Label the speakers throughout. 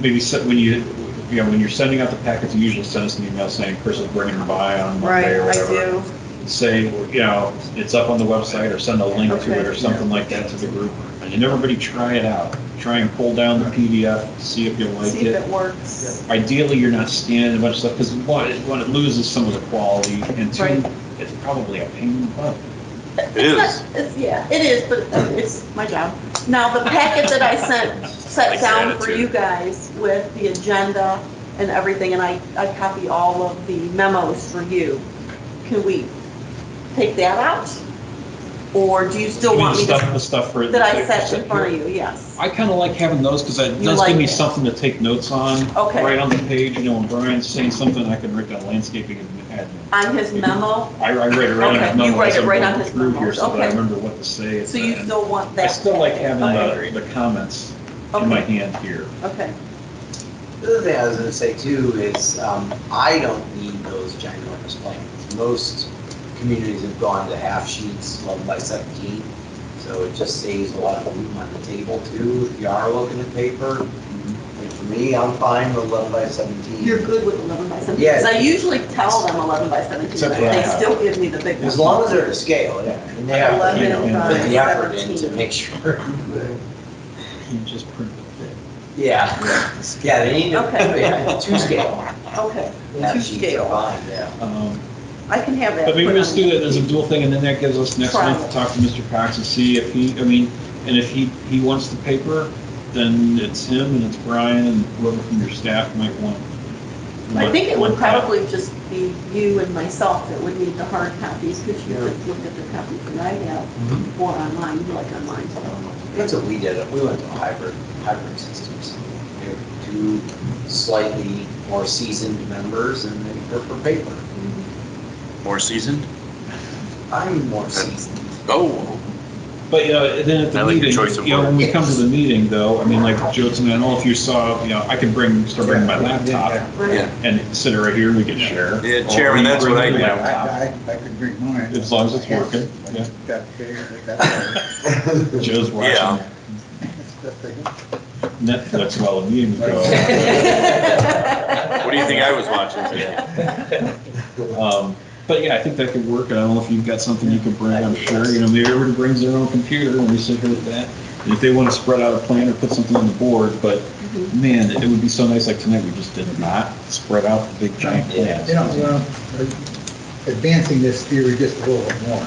Speaker 1: maybe se- when you, you know, when you're sending out the packets, you usually send us an email saying Chris is bringing it by on
Speaker 2: Right,
Speaker 1: Monday or
Speaker 2: I
Speaker 1: whatever.
Speaker 2: do.
Speaker 1: Say, you know, it's up on the website or send a link to it or
Speaker 2: Okay.
Speaker 1: something like that to the group. And everybody try it out. Try and pull down the PDF, see if you like
Speaker 2: See if
Speaker 1: it.
Speaker 2: it works.
Speaker 1: Ideally, you're not scanning a bunch of stuff because one, it- one, it loses some of the quality and two,
Speaker 2: Right.
Speaker 1: it's probably a pain in the butt.
Speaker 3: It is.
Speaker 2: It's, yeah, it is, but it's my job. Now, the packet that I sent,
Speaker 3: Like
Speaker 2: set
Speaker 3: your
Speaker 2: down for
Speaker 3: attitude.
Speaker 2: you guys with the agenda and everything, and I, I copy all of the memos for you. Can we take that out? Or do you still
Speaker 1: You mean
Speaker 2: want
Speaker 1: the
Speaker 2: me
Speaker 1: stuff,
Speaker 2: to,
Speaker 1: the stuff for.
Speaker 2: that I set in front of you, yes?
Speaker 1: I kind of like having those because that
Speaker 2: You
Speaker 1: does
Speaker 2: like
Speaker 1: give me
Speaker 2: it.
Speaker 1: something to take notes on.
Speaker 2: Okay.
Speaker 1: Right on the page, you know, when Brian's saying something, I can write down landscaping and admin.
Speaker 2: On his memo,
Speaker 1: I I write it right on
Speaker 2: Okay,
Speaker 1: his
Speaker 2: you
Speaker 1: memo.
Speaker 2: write
Speaker 1: as
Speaker 2: it
Speaker 1: I'm
Speaker 2: right
Speaker 1: going
Speaker 2: on his
Speaker 1: through here
Speaker 2: memos,
Speaker 1: So that I
Speaker 2: okay.
Speaker 1: remember what to say. at
Speaker 2: so
Speaker 1: the
Speaker 2: you
Speaker 1: end.
Speaker 2: still want
Speaker 1: I
Speaker 2: that?
Speaker 1: still like having
Speaker 4: I
Speaker 1: the,
Speaker 4: agree.
Speaker 1: the comments in my
Speaker 2: Okay,
Speaker 1: hand here.
Speaker 2: okay,
Speaker 4: The other thing I was gonna say too is, um, I don't need those ginormous plans. Most communities have gone to half sheets, eleven by seventeen, so it just saves a lot of room on the table too, if you are looking at paper. And for me, I'm fine with eleven by seventeen.
Speaker 2: you're good with 11 by 17?
Speaker 4: Yeah.
Speaker 2: Because I usually tell them 11 by 17,
Speaker 1: Except
Speaker 2: but
Speaker 1: for
Speaker 2: they
Speaker 1: that.
Speaker 2: still give me the big one.
Speaker 4: As long as they're to scale, yeah, and they have, to, you know,
Speaker 1: 11
Speaker 4: put the
Speaker 2: by
Speaker 4: effort in to
Speaker 2: 17.
Speaker 4: make sure.
Speaker 1: You just print it thick.
Speaker 4: Yeah, yeah, they need to,
Speaker 2: Okay.
Speaker 4: yeah, two scale.
Speaker 2: Okay,
Speaker 4: Half
Speaker 2: Two
Speaker 4: sheets are
Speaker 2: scale.
Speaker 4: fine, yeah.
Speaker 1: Um,
Speaker 2: I can have that.
Speaker 1: But maybe
Speaker 2: put
Speaker 1: let's
Speaker 2: on
Speaker 1: do that as a dual thing, and then that gives us next
Speaker 2: Try.
Speaker 1: month to talk to Mr. Cox and see if he, I mean, and if he, he wants the paper, then it's him and it's Brian and whoever from your staff might want.
Speaker 2: I think it would
Speaker 1: want that.
Speaker 2: probably just be you and myself that would need the hard copies, because you
Speaker 4: Yeah.
Speaker 2: could look at the copies that I have,
Speaker 3: Mm-hmm.
Speaker 2: or online, you like online.
Speaker 4: That's what we did, we went to hybrid, hybrid systems. They were Two slightly more seasoned members and they were for paper.
Speaker 3: More seasoned?
Speaker 4: I'm more seasoned.
Speaker 3: Oh,
Speaker 1: But, you know, then at
Speaker 3: I
Speaker 1: the
Speaker 3: like your
Speaker 1: meeting,
Speaker 3: choice of
Speaker 1: you know, when we
Speaker 4: words.
Speaker 1: come to the meeting though, I mean, like Joe, and I don't know if you saw, you know, I can bring, start bringing my laptop
Speaker 3: yeah.
Speaker 1: and sit right here, we can share.
Speaker 3: Yeah, Chairman, that's what I
Speaker 1: Or bring your
Speaker 3: do.
Speaker 1: laptop.
Speaker 5: I, I, I could drink mine.
Speaker 1: As long as it's working, yeah.
Speaker 5: That big, that,
Speaker 1: Joe's watching
Speaker 3: Yeah.
Speaker 5: that big.
Speaker 1: Netflix while the meeting's going.
Speaker 3: What do you think I was watching today?
Speaker 1: Um, But yeah, I think that could work. I don't know if you've got something you could bring, I'm sure, you know, maybe everybody brings their own computer and we sit here with that. And if they want to spread out a plan or put something on the board, but
Speaker 2: Mhm.
Speaker 1: man, it would be so nice, like tonight, we just did not spread out the big giant
Speaker 5: You know, you
Speaker 1: plans.
Speaker 5: know, advancing this theory just a little bit more.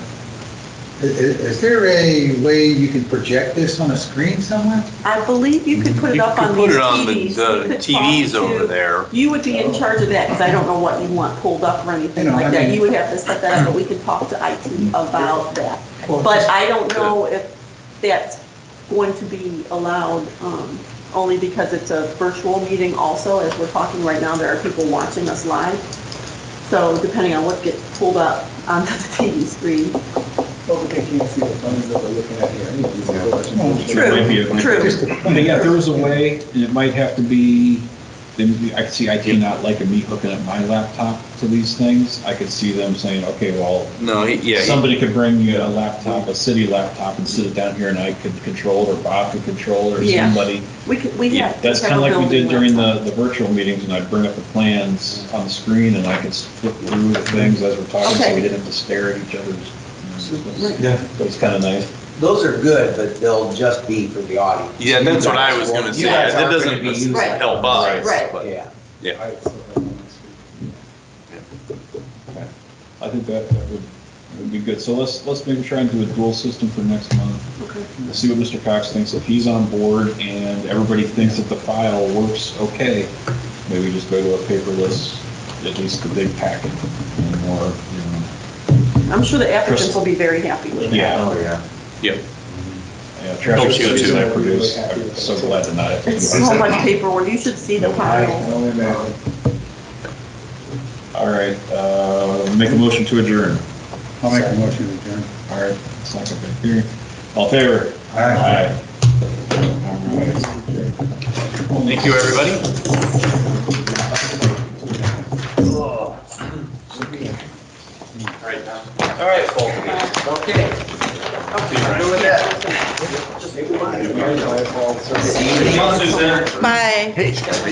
Speaker 5: I- i- Is there a way you can project this on a screen somewhere?
Speaker 2: I believe you could put it
Speaker 3: You
Speaker 2: up
Speaker 3: could
Speaker 2: on
Speaker 3: put
Speaker 2: these
Speaker 3: it on the
Speaker 2: TVs. You
Speaker 3: the
Speaker 2: could talk
Speaker 3: TVs
Speaker 2: to-
Speaker 3: over there.
Speaker 2: You would be in charge of that, because I don't know what you want pulled up or anything
Speaker 5: You know, I
Speaker 2: like that.
Speaker 5: mean-
Speaker 2: You would have to set that up, but we could talk to IT about that. But I don't know if that's going to be allowed, um, only because it's a virtual meeting also. As we're talking right now, there are people watching us live. So depending on what gets pulled up onto the TV screen.
Speaker 5: Well, they can't see the thumbs that they're looking at here anyways.
Speaker 2: True.
Speaker 1: Might be a-
Speaker 2: True.
Speaker 1: But yeah, if there was a way, and it might have to be, then I could see, I cannot like me hooking up my laptop to these things. I could see them saying, okay, well,
Speaker 3: No, he- yeah, he-
Speaker 1: Somebody could bring you a laptop, a city laptop, and sit it down here, and I could control it, or Bob could control it, or
Speaker 2: Yeah.
Speaker 1: somebody.
Speaker 2: We could, we
Speaker 3: Yeah,
Speaker 2: have.
Speaker 1: That's kind of like we did during the, the virtual meetings, and I'd bring up the plans on the screen, and I could flip through the things as we're talking, so we
Speaker 2: Okay.
Speaker 1: didn't have to stare at each other's.
Speaker 2: Right.
Speaker 1: Yeah. It was kind of nice.
Speaker 4: Those are good, but they'll just be for the audience.
Speaker 3: yeah, that's what I was gonna
Speaker 4: You
Speaker 3: say.
Speaker 4: guys
Speaker 3: That
Speaker 4: aren't gonna
Speaker 3: doesn't
Speaker 4: be using
Speaker 2: Right.
Speaker 3: help us.
Speaker 2: Right.
Speaker 3: but-
Speaker 4: Yeah.
Speaker 1: I think that, that would, would be good. So let's, let's maybe try and do a dual system for next month.
Speaker 2: Okay.
Speaker 1: We'll see what Mr. Cox thinks. If he's on board and everybody thinks that the file works okay, maybe just go to a paperless, at least the big packet, and more, you
Speaker 2: I'm sure the applicants will be very happy with
Speaker 1: know. Yeah.
Speaker 2: that.
Speaker 4: yeah.
Speaker 3: Yep.
Speaker 1: yeah, Traffic
Speaker 3: Don't you
Speaker 1: studies
Speaker 3: too.
Speaker 1: I produce, I'm so glad to not have to do
Speaker 2: It's so
Speaker 1: that.
Speaker 2: much paperwork. You should see the pile.
Speaker 1: All right, uh, make a motion to adjourn.
Speaker 5: I'll make a motion to adjourn.
Speaker 1: All right, it's not gonna be here. All in favor? Aye. All right.
Speaker 3: Thank you, everybody.
Speaker 4: Okay.
Speaker 2: Okay.
Speaker 4: Doing that. Just-
Speaker 6: I-
Speaker 7: If you guys have all-
Speaker 6: See you
Speaker 4: Come on, Suzanne.
Speaker 2: Bye.